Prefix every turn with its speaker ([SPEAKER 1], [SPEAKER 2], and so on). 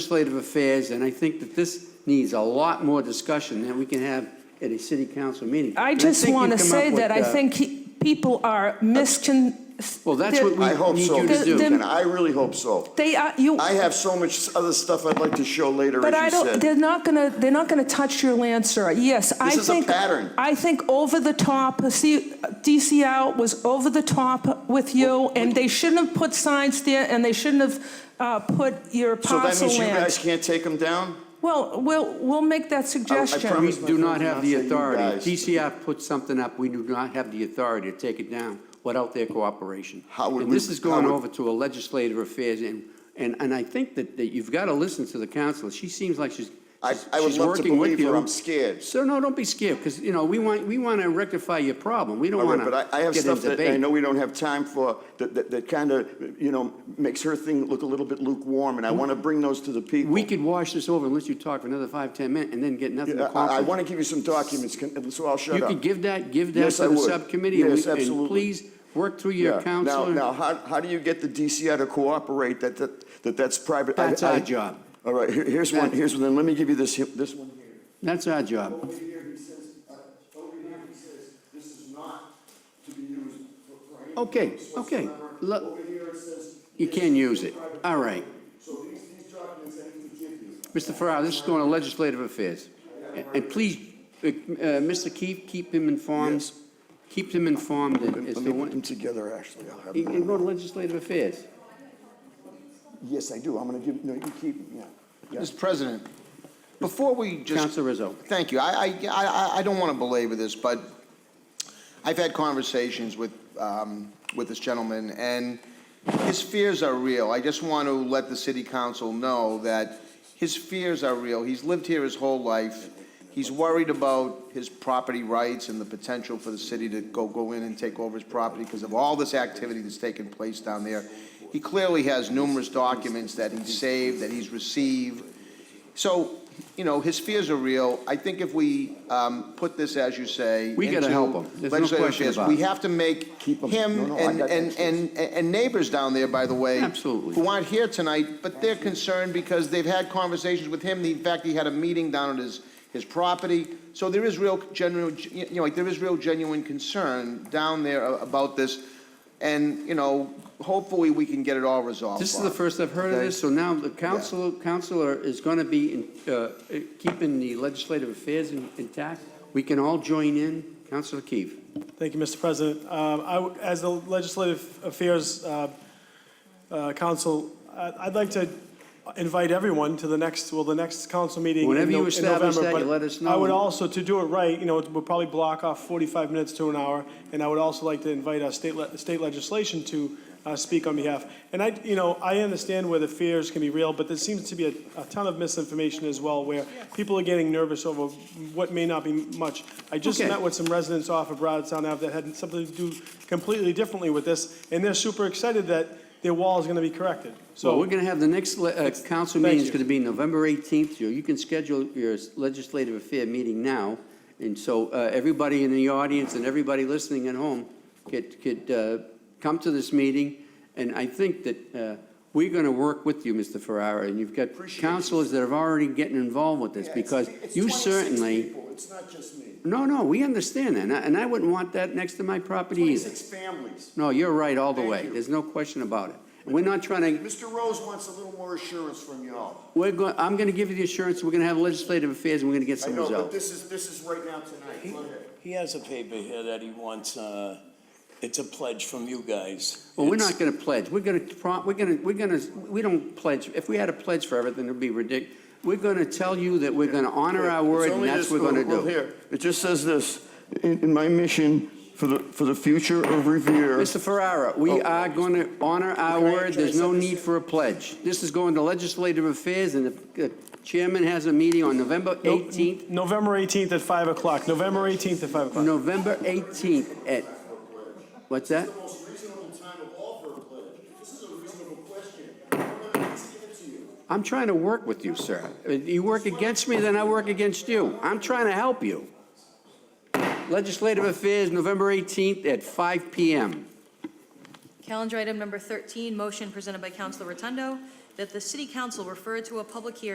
[SPEAKER 1] legislative affairs, and I think that this needs a lot more discussion than we can have at a city council meeting.
[SPEAKER 2] I
[SPEAKER 1] And
[SPEAKER 2] just
[SPEAKER 1] think you've
[SPEAKER 2] want to
[SPEAKER 1] come
[SPEAKER 2] say
[SPEAKER 1] up with,
[SPEAKER 2] that I
[SPEAKER 1] uh,
[SPEAKER 2] think he- people are miscon...
[SPEAKER 1] Well, that's what
[SPEAKER 2] they're-
[SPEAKER 1] we-
[SPEAKER 2] they
[SPEAKER 1] I
[SPEAKER 3] I hope
[SPEAKER 1] need
[SPEAKER 3] so,
[SPEAKER 1] you to
[SPEAKER 3] Mr.
[SPEAKER 2] do.
[SPEAKER 3] McKenna. I really hope so.
[SPEAKER 2] are, you,
[SPEAKER 3] I have so much other stuff I'd like to show later,
[SPEAKER 2] but I
[SPEAKER 3] as you
[SPEAKER 2] don't,
[SPEAKER 3] said.
[SPEAKER 2] they're not going to, they're not going to touch your land, sir. Yes, I think...
[SPEAKER 3] is a pattern.
[SPEAKER 2] I think over the top, uh, see, DCL was over the top with you, and they shouldn't have put signs there, and they shouldn't have uh, put your
[SPEAKER 3] So that
[SPEAKER 2] parcel
[SPEAKER 3] means you guys
[SPEAKER 2] land.
[SPEAKER 3] can't take them down?
[SPEAKER 2] Well, we'll, we'll make that suggestion.
[SPEAKER 1] We
[SPEAKER 3] promise
[SPEAKER 1] do not have the
[SPEAKER 3] myself not to you
[SPEAKER 1] authority.
[SPEAKER 3] guys.
[SPEAKER 1] DCF puts something up, we do not have the authority to take it down without their cooperation.
[SPEAKER 3] How would
[SPEAKER 1] And
[SPEAKER 3] we-
[SPEAKER 1] this is going
[SPEAKER 3] how would-
[SPEAKER 1] over to a legislative affairs, and, and, and I think that, that you've got to listen to the council. She seems like she's,
[SPEAKER 3] I-
[SPEAKER 1] she's
[SPEAKER 3] I would
[SPEAKER 1] she's
[SPEAKER 3] love to
[SPEAKER 1] working with
[SPEAKER 3] believe her.
[SPEAKER 1] you.
[SPEAKER 3] I'm scared.
[SPEAKER 1] So, no, don't be scared, because, you know, we want, we want to rectify your problem. We
[SPEAKER 3] All
[SPEAKER 1] don't
[SPEAKER 3] right,
[SPEAKER 1] want to
[SPEAKER 3] but I- I have
[SPEAKER 1] get in
[SPEAKER 3] stuff that I
[SPEAKER 1] debate.
[SPEAKER 3] know we don't have time for, that, that, that kind of, you know, makes her thing look a little bit lukewarm, and I want to bring those to the people.
[SPEAKER 1] We could wash this over unless you talk for another five, 10 minutes and then get nothing
[SPEAKER 3] I- I,
[SPEAKER 1] accomplished.
[SPEAKER 3] want to give you some documents, can- so I'll shut
[SPEAKER 1] You
[SPEAKER 3] up.
[SPEAKER 1] could give that, give that
[SPEAKER 3] Yes,
[SPEAKER 1] to
[SPEAKER 3] I
[SPEAKER 1] the
[SPEAKER 3] would.
[SPEAKER 1] subcommittee. and
[SPEAKER 3] Yes,
[SPEAKER 1] we- And
[SPEAKER 3] absolutely.
[SPEAKER 1] please, work through
[SPEAKER 3] Yeah.
[SPEAKER 1] your
[SPEAKER 3] Now, now,
[SPEAKER 1] counselor.
[SPEAKER 3] how, how do you get the DCI to cooperate that, that, that that's private? I-
[SPEAKER 1] That's
[SPEAKER 3] I-
[SPEAKER 1] our job.
[SPEAKER 3] All right, here- here's one, here's one, then let me give you this, he- this one here.
[SPEAKER 1] That's our job.
[SPEAKER 3] Over here, he says, uh, over here, he says, this is not to be used for- for any
[SPEAKER 1] Okay,
[SPEAKER 3] purpose
[SPEAKER 1] okay.
[SPEAKER 3] whatsoever.
[SPEAKER 1] Look-
[SPEAKER 3] Over here, it says.
[SPEAKER 1] You
[SPEAKER 3] this
[SPEAKER 1] can
[SPEAKER 3] is
[SPEAKER 1] use
[SPEAKER 3] for
[SPEAKER 1] it.
[SPEAKER 3] private
[SPEAKER 1] All right.
[SPEAKER 3] property. So these, these documents I need to give
[SPEAKER 1] Mr.
[SPEAKER 3] you.
[SPEAKER 1] Farrar, this is going to legislative affairs. And- And please, uh, uh, Mr. Keefe, keep him informed.
[SPEAKER 3] Yes.
[SPEAKER 1] Keep him informed
[SPEAKER 3] Let me
[SPEAKER 1] as to
[SPEAKER 3] put them
[SPEAKER 1] when,
[SPEAKER 3] together, actually. I'll have
[SPEAKER 1] you
[SPEAKER 3] them.
[SPEAKER 1] can go to legislative affairs.
[SPEAKER 3] Yes, I do, I'm gonna give, no, you keep them, yeah. Yeah.
[SPEAKER 4] Mr. President, before we just.
[SPEAKER 1] Councilor Rizzo.
[SPEAKER 4] Thank you. I, I- I, I- I don't want to belabor this, but I've had conversations with, um, with this gentleman, and his fears are real. I just want to let the city council know that his fears are real. He's lived here his whole life. He's worried about his property rights and the potential for the city to go, go in and take over his property because of all this activity that's taken place down there. He clearly has numerous documents that he's saved, that he's received. So, you know, his fears are real. I think if we um, put this, as you say.
[SPEAKER 1] We gotta
[SPEAKER 4] into
[SPEAKER 1] help him. There's no
[SPEAKER 4] legislative
[SPEAKER 1] question
[SPEAKER 4] affairs,
[SPEAKER 1] about
[SPEAKER 4] We
[SPEAKER 1] it.
[SPEAKER 4] have to make
[SPEAKER 3] Keep 'em. No,
[SPEAKER 4] him
[SPEAKER 3] no, I
[SPEAKER 4] and,
[SPEAKER 3] got that,
[SPEAKER 4] and, and, and neighbors down there, by the way.
[SPEAKER 1] Absolutely.
[SPEAKER 4] Who aren't here tonight, but they're concerned because they've had conversations with him. In fact, he had a meeting down at his, his property. So there is real genuine, you know, like, there is real genuine concern down there a- about this. And, you know, hopefully we can get it all resolved.
[SPEAKER 1] This is
[SPEAKER 4] Bob.
[SPEAKER 1] the first I've heard of
[SPEAKER 4] Okay?
[SPEAKER 1] this, so now the council, counselor is going to be in- uh, keeping the legislative affairs in- intact. We can all join in. Counselor Keefe.
[SPEAKER 5] Thank you, Mr. President. Um, I w- As the Legislative Affairs uh, uh, Council, I- I'd like to invite everyone to the next, well, the next council meeting in
[SPEAKER 1] Whenever you
[SPEAKER 5] No- in
[SPEAKER 1] establish
[SPEAKER 5] November,
[SPEAKER 1] that, you
[SPEAKER 5] but
[SPEAKER 1] let us
[SPEAKER 5] I would
[SPEAKER 1] know.
[SPEAKER 5] also, to do it right, you know, we'll probably block off 45 minutes to an hour, and I would also like to invite our state le- state legislation to uh, speak on behalf. And I, you know, I understand where the fears can be real, but there seems to be a- a ton of misinformation as well, where people are getting nervous over what may not be much. I just
[SPEAKER 1] Okay.
[SPEAKER 5] met with some residents off of Broadtown Ave that had something to do completely differently with this, and they're super excited that their wall is going to be corrected.
[SPEAKER 1] Well, we're
[SPEAKER 5] So,
[SPEAKER 1] going to have the next le- uh, council meeting is
[SPEAKER 5] you.
[SPEAKER 1] going to be November 18th. You you can schedule your legislative affair meeting now. And so uh, everybody in the audience and everybody listening at home could, could uh, come to this meeting. And I think that uh, we're going to work with you, Mr. Ferrara, and you've got councilors that have already getting involved with this because you certainly,
[SPEAKER 3] It's not just me.
[SPEAKER 1] no, no, we understand that. And I- And I wouldn't want that next to my property either.
[SPEAKER 3] Twenty-six families.
[SPEAKER 1] No, you're right all the
[SPEAKER 3] Thank
[SPEAKER 1] way.
[SPEAKER 3] you.
[SPEAKER 1] There's no question about it. And We're not trying to
[SPEAKER 3] Mr. Rose wants a little more assurance from y'all.
[SPEAKER 1] We're going, I'm going to give you the assurance, we're going to have legislative affairs, and we're going to get
[SPEAKER 3] I
[SPEAKER 1] some
[SPEAKER 3] know, but
[SPEAKER 1] results.
[SPEAKER 3] this is, this is right now tonight. Go ahead.
[SPEAKER 6] He has a paper here that he wants, uh, it's a pledge from you guys.
[SPEAKER 1] Well, we're
[SPEAKER 6] It's-
[SPEAKER 1] not going to pledge, we're going to, pro we're going to, we're going to, we don't pledge, if we had a pledge for everything, it'd be ridiculous. We're going to tell you that we're going to honor our word,
[SPEAKER 3] It's
[SPEAKER 1] and
[SPEAKER 3] only
[SPEAKER 1] that's
[SPEAKER 3] this-
[SPEAKER 1] what we're going
[SPEAKER 3] well,
[SPEAKER 1] to do.
[SPEAKER 3] here, It just says this, in, in my mission for the, for the future of Revere.
[SPEAKER 1] Mr. Ferrara, we are going to honor our
[SPEAKER 3] Oh, Can I
[SPEAKER 1] word, there's
[SPEAKER 3] try
[SPEAKER 1] no
[SPEAKER 3] something?
[SPEAKER 1] need for a pledge. This is going to legislative affairs, and if the chairman has a meeting on November 18th,
[SPEAKER 5] November 18th at 5 o'clock, November 18th at 5 o'clock.
[SPEAKER 1] November 18th at, what's that?
[SPEAKER 3] most reasonable time of all for a pledge. This is a reasonable question. I'm gonna give it to you.
[SPEAKER 1] I'm trying to work with you, sir. You work against me, then I work against you. I'm trying to help you. Legislative Affairs, November 18th at 5 PM.
[SPEAKER 7] Calendar item number 13, motion presented by Councilor Rotundo that the city council refer to a public hearing